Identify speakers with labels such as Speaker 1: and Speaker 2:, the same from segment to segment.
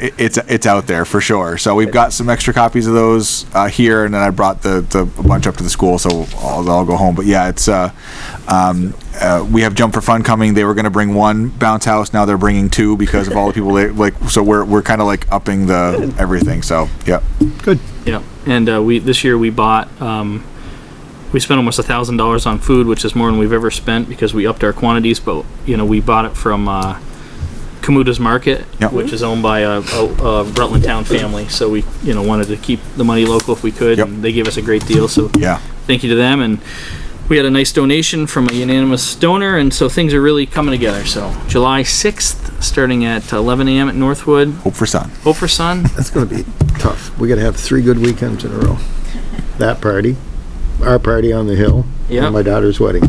Speaker 1: it, it's it's out there for sure. So we've got some extra copies of those uh, here, and then I brought the, the a bunch up to the school, so I'll, I'll go home. But yeah, it's uh, um, uh, we have Jump for Fun coming. They were going to bring one bounce house, now they're bringing two because of all the people. They, like so, we're we're kind of like upping the everything. So yeah,
Speaker 2: Good.
Speaker 3: Yeah, and uh, we this year we bought um, we spent almost a thousand dollars on food, which is more than we've ever spent because we upped our quantities. But you know, we bought it from uh, Kamuta's Market,
Speaker 1: Yep.
Speaker 3: which is owned by a, a, a Rutland Town family. So we you know wanted to keep the money local if we could,
Speaker 1: Yep.
Speaker 3: and they gave us a great deal. So
Speaker 1: yeah,
Speaker 3: thank you to them and. We had a nice donation from a unanimous donor, and so things are really coming together. So, July 6th, starting at 11 a.m. at Northwood,
Speaker 1: hope for sun.
Speaker 3: Hope for Sun,
Speaker 2: That's going to be tough. We got to have three good weekends in a row. That party, our party on the hill,
Speaker 3: Yep.
Speaker 2: and my daughter's wedding.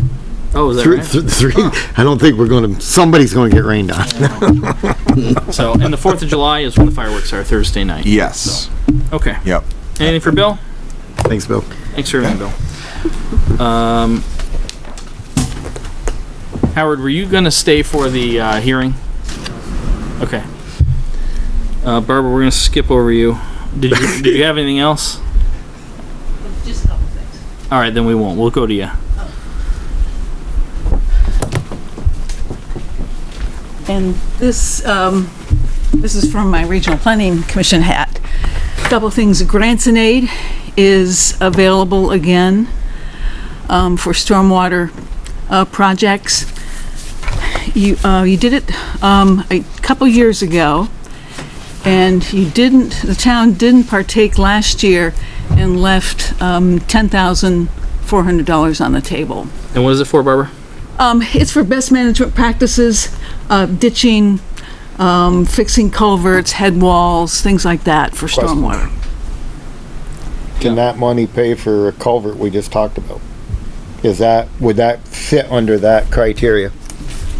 Speaker 3: Oh, is that
Speaker 2: Three,
Speaker 3: right?
Speaker 2: th- three. I don't think we're going to. Somebody's going to get rained on.
Speaker 3: So, and the Fourth of July is when the fireworks are Thursday night.
Speaker 1: Yes.
Speaker 3: Okay.
Speaker 1: Yep.
Speaker 3: Anything for Bill?
Speaker 2: Thanks, Bill.
Speaker 3: Thanks for having me, Bill. Um, Howard, were you going to stay for the uh, hearing? Okay. Uh, Barbara, we're going to skip over you. Did you, did you have anything else?
Speaker 4: Just a couple things.
Speaker 3: All right, then we won't. We'll go to you.
Speaker 4: And this, um, this is from my Regional Planning Commission hat. Couple things, grants and aid is available again um, for stormwater uh, projects. You, uh, you did it um, a couple years ago, and you didn't, the town didn't partake last year and left um, $10,400 on the table.
Speaker 3: And what is it for, Barbara?
Speaker 4: Um, it's for best management practices, uh, ditching, um, fixing culverts, head walls, things like that for
Speaker 2: Question.
Speaker 4: stormwater.
Speaker 2: Can that money pay for a culvert we just talked about? Is that would that fit under that criteria?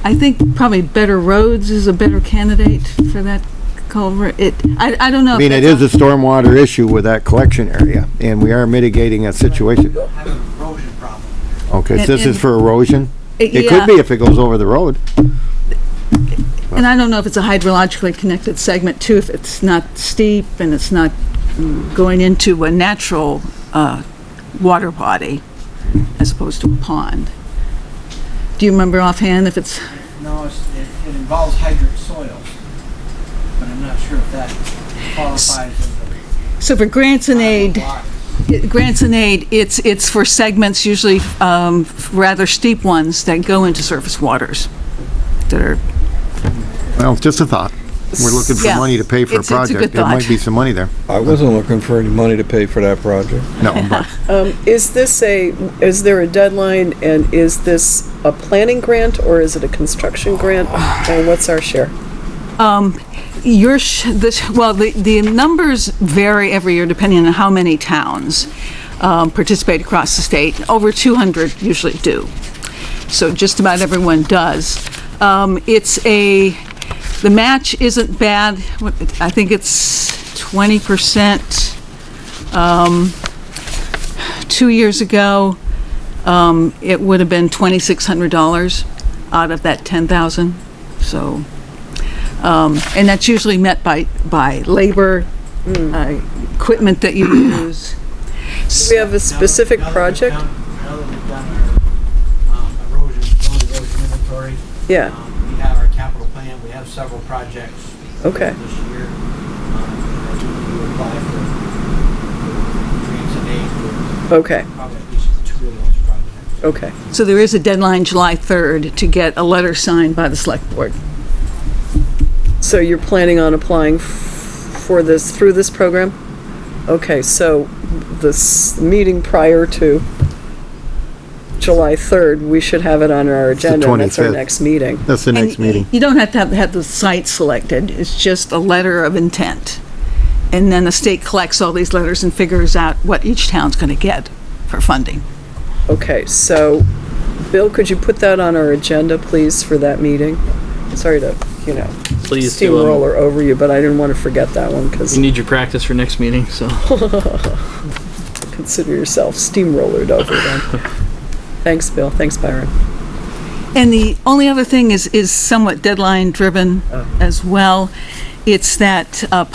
Speaker 4: I think probably Better Roads is a better candidate for that culvert. It, I, I don't know.
Speaker 2: I
Speaker 4: if
Speaker 2: mean, it
Speaker 4: Oh, that's-
Speaker 2: is a stormwater issue with that collection area, and we are mitigating a situation.
Speaker 5: have an erosion problem.
Speaker 2: Okay, so this is for erosion. It
Speaker 4: yeah,
Speaker 2: could be if it goes over the road.
Speaker 4: And I don't know if it's a hydrologically connected segment too, if it's not steep and it's not mm, going into a natural, uh, water body as opposed to a pond. Do you remember offhand if it's
Speaker 5: No, it's, it, it involves hydric soils, but I'm not sure if that qualifies as a.
Speaker 4: So for grants and aid, grants and aid, it's, it's for segments, usually um, rather steep ones, that go into surface waters that are,
Speaker 2: Well, just a thought. We're looking for
Speaker 4: Yeah.
Speaker 2: money to pay for a
Speaker 4: It's- it's a
Speaker 2: project.
Speaker 4: good
Speaker 2: There might
Speaker 4: thought.
Speaker 2: be some money there.
Speaker 6: I wasn't looking for any money to pay for that project.
Speaker 2: No, but
Speaker 7: Um, Is this a, is there a deadline, and is this a planning grant, or is it a construction grant? And what's our share?
Speaker 4: your, sh- this, well, the, the numbers vary every year depending on how many towns um, participate across the state. Over 200 usually do. So just about everyone does. Um, It's a, the match isn't bad. What- I think it's 20%. two years ago, um, it would have been $2,600 out of that 10,000, so, um, and that's usually met by, by labor,
Speaker 7: Mm.
Speaker 4: uh, equipment that you use.
Speaker 7: Do we have a specific project?
Speaker 5: Now that we've done our, um, erosion, road erosion inventory.
Speaker 7: Yeah.
Speaker 5: um, We have our capital plan, we have several projects.
Speaker 7: Okay.
Speaker 5: This year. um, that we apply for grants and aid,
Speaker 7: Okay,
Speaker 5: for probably at least two of those projects.
Speaker 7: okay.
Speaker 4: So there is a deadline, July 3rd, to get a letter signed by the select board.
Speaker 7: So you're planning on applying f- for this, through this program? Okay, so this meeting prior to July 3rd, we should have it on our
Speaker 2: the
Speaker 7: agenda, and that's our
Speaker 2: 25th.
Speaker 7: next meeting.
Speaker 2: that's the next
Speaker 4: And
Speaker 2: meeting.
Speaker 4: You don't have to have, have the site selected, it's just a letter of intent. And then the state collects all these letters and figures out what each town's gonna get for funding.
Speaker 7: Okay, so, Bill, could you put that on our agenda, please, for that meeting? Sorry to, you know,
Speaker 3: Please do. um,
Speaker 7: steamroller over you, but I didn't want to forget that one, because
Speaker 3: you need your practice for next meeting, so.
Speaker 7: consider yourself steamrollered over then. Thanks, Bill. Thanks, Byron.
Speaker 4: And the only other thing is, is somewhat deadline-driven as well. It's that uh,